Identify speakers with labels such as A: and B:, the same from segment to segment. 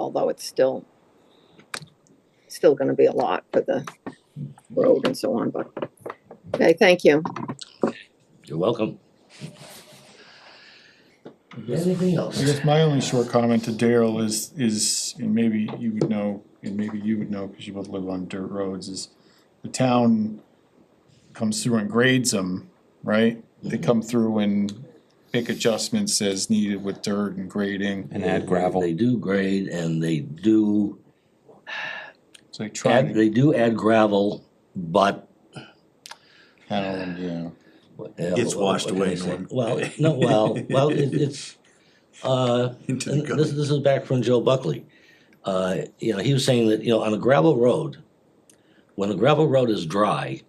A: although it's still, still gonna be a lot for the road and so on, but, okay, thank you.
B: You're welcome. Anything else?
C: I guess my only short comment to Daryl is, is, and maybe you would know, and maybe you would know, cause you both live on dirt roads, is the town comes through and grades them, right? They come through and make adjustments as needed with dirt and grading,
D: and add gravel.
B: They do grade and they do,
C: so they try
B: add-
C: to
B: they do add gravel, but.
C: handle them, yeah.
B: Gets
E: washed away, Norm.
B: uh, Well, no, well, well, it- it's, uh,
E: into the
B: and this,
E: gutter.
B: this is back from Joe Buckley. Uh, you know, he was saying that, you know, on a gravel road, when a gravel road is dry,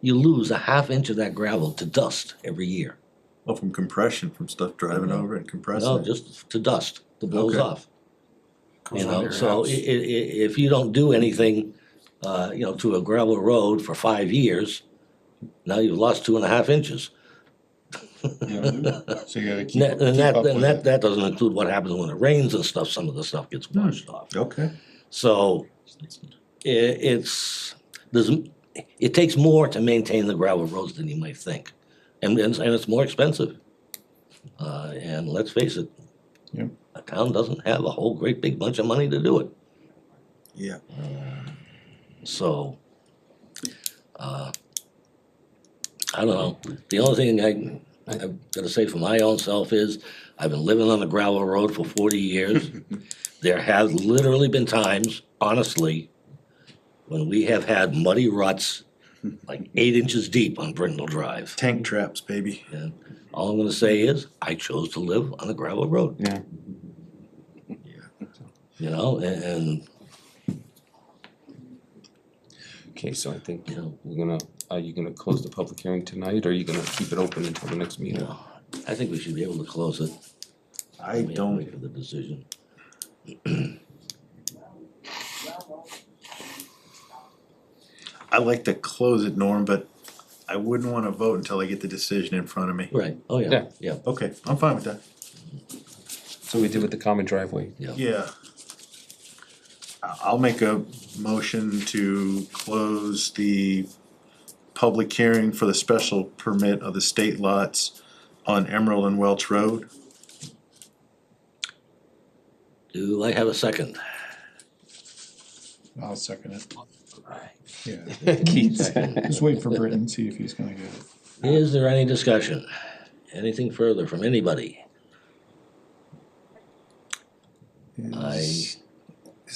B: you lose a half inch of that gravel to dust every year.
E: Oh, from compression, from stuff driving
B: Mhm.
E: over and compressing
B: No,
E: it.
B: just to dust, to blows
E: Okay.
B: off. You
D: Goes under
B: know,
D: your
B: so i-
D: house.
B: i- i- if you don't do anything, uh, you know, to a gravel road for five years, now you've lost two and a half inches.
C: Yeah. So you gotta keep,
B: And that, and
C: keep
B: that,
C: up
B: and
C: with
B: that,
C: it.
B: that doesn't include what happens when it rains and stuff, some of the stuff gets washed off.
E: Okay,
B: So i it's, there's, m- it takes more to maintain the gravel roads than you might think. And, and, and it's more expensive. Uh, and let's face it.
C: Yep.
B: A town doesn't have a whole great big bunch of money to do it, Uh,
E: yeah.
B: so. uh, I don't know, the only thing I, I've gotta say for my own self is, I've been living on a gravel road for forty years. There have literally been times, honestly, when we have had muddy ruts, like eight inches deep on Brindle Drive.
E: Tank traps, baby.
B: And all I'm gonna say is, I chose to live on a gravel road.
D: Yeah.
B: You know, and, and,
D: Okay, so I think
B: you know,
D: we're gonna, are you gonna close the public hearing tonight, or are you gonna keep it open until the next
B: you
D: meeting?
B: know, I think we should be able to close it.
E: I
B: Wait-
E: don't,
B: Wait for the decision.
E: I like to close it, Norm, but I wouldn't wanna vote until I get the decision in front of me.
B: Right, oh yeah,
D: Yeah.
B: yeah,
E: Okay, I'm fine with that,
D: So we did with the common driveway.
B: yeah.
E: yeah. I- I'll make a motion to close the public hearing for the special permit of the state lots on Emerald and Welch Road.
B: Do I have a second?
C: I'll second it, yeah.
D: Keith.
C: Just wait for Britton, see if he's gonna get it.
B: Is there any discussion? Anything further from anybody? I-
C: Is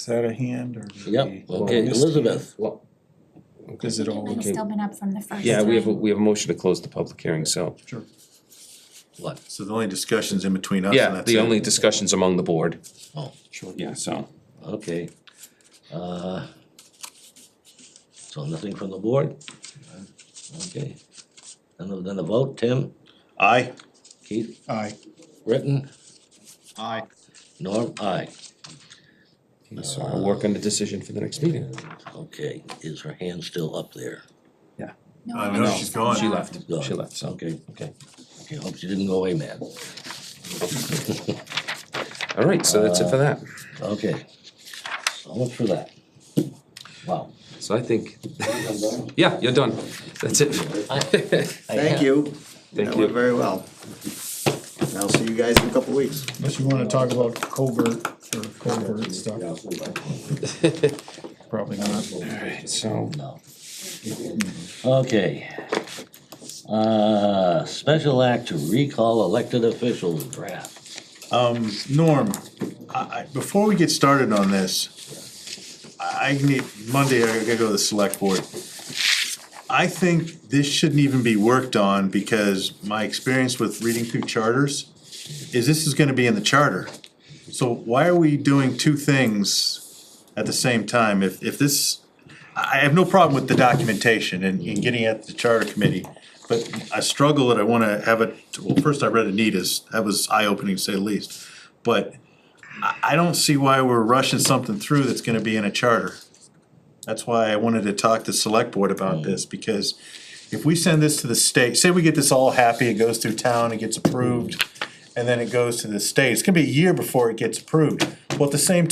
C: that a hand or? is
B: Yep,
C: it a-
B: okay, Elizabeth,
D: Well,
C: Is it all?
F: It's still been up from the first.
D: yeah, we have, a
F: time.
D: we have a motion to close the public hearing, so.
C: Sure.
B: what?
E: So the only discussion's in between us and
D: Yeah,
E: that's
D: the
E: it.
D: only discussions among the board.
B: Oh,
C: Sure.
D: Yeah, so.
B: okay. Uh, So nothing from the board? Okay. And then- then a vote, Tim,
E: Aye,
B: Keith,
C: Aye.
B: Britton,
C: Aye.
B: Norm, I.
D: So I'll work on the decision for the next meeting.
B: Okay, is her hand still up there?
F: No,
E: I
F: I
E: know
F: think
E: she's gone.
D: She left,
B: Gone.
D: she left, so,
B: Okay,
D: okay.
B: okay, hope she didn't go away mad.
D: All right, so that's it for that.
B: Okay. So much for that. Wow.
D: So I think, yeah, you're done. That's it.
G: Thank you.
D: Thank
G: That went
D: you.
G: very well. And I'll see you guys in a couple weeks.
C: Unless you wanna talk about covert or covert stuff, probably not.
D: So,
B: No. Okay. Uh, special act to recall elected officials draft.
E: Norm, I, I, before we get started on this, I I need, Monday, I gotta go to the select board. I think this shouldn't even be worked on because my experience with reading through charters is this is gonna be in the charter. So why are we doing two things at the same time? If, if this, I, I have no problem with the documentation and, and getting at the charter committee. But I struggle that I wanna have it, well, first I read Anita's, that was eye-opening to say the least. But I, I don't see why we're rushing something through that's gonna be in a charter. That's why I wanted to talk to select board about this, because if we send this to the state, say we get this all happy, it goes through town, it gets approved, and then it goes to the state, it's gonna be a year before it gets approved. Well, at the same time.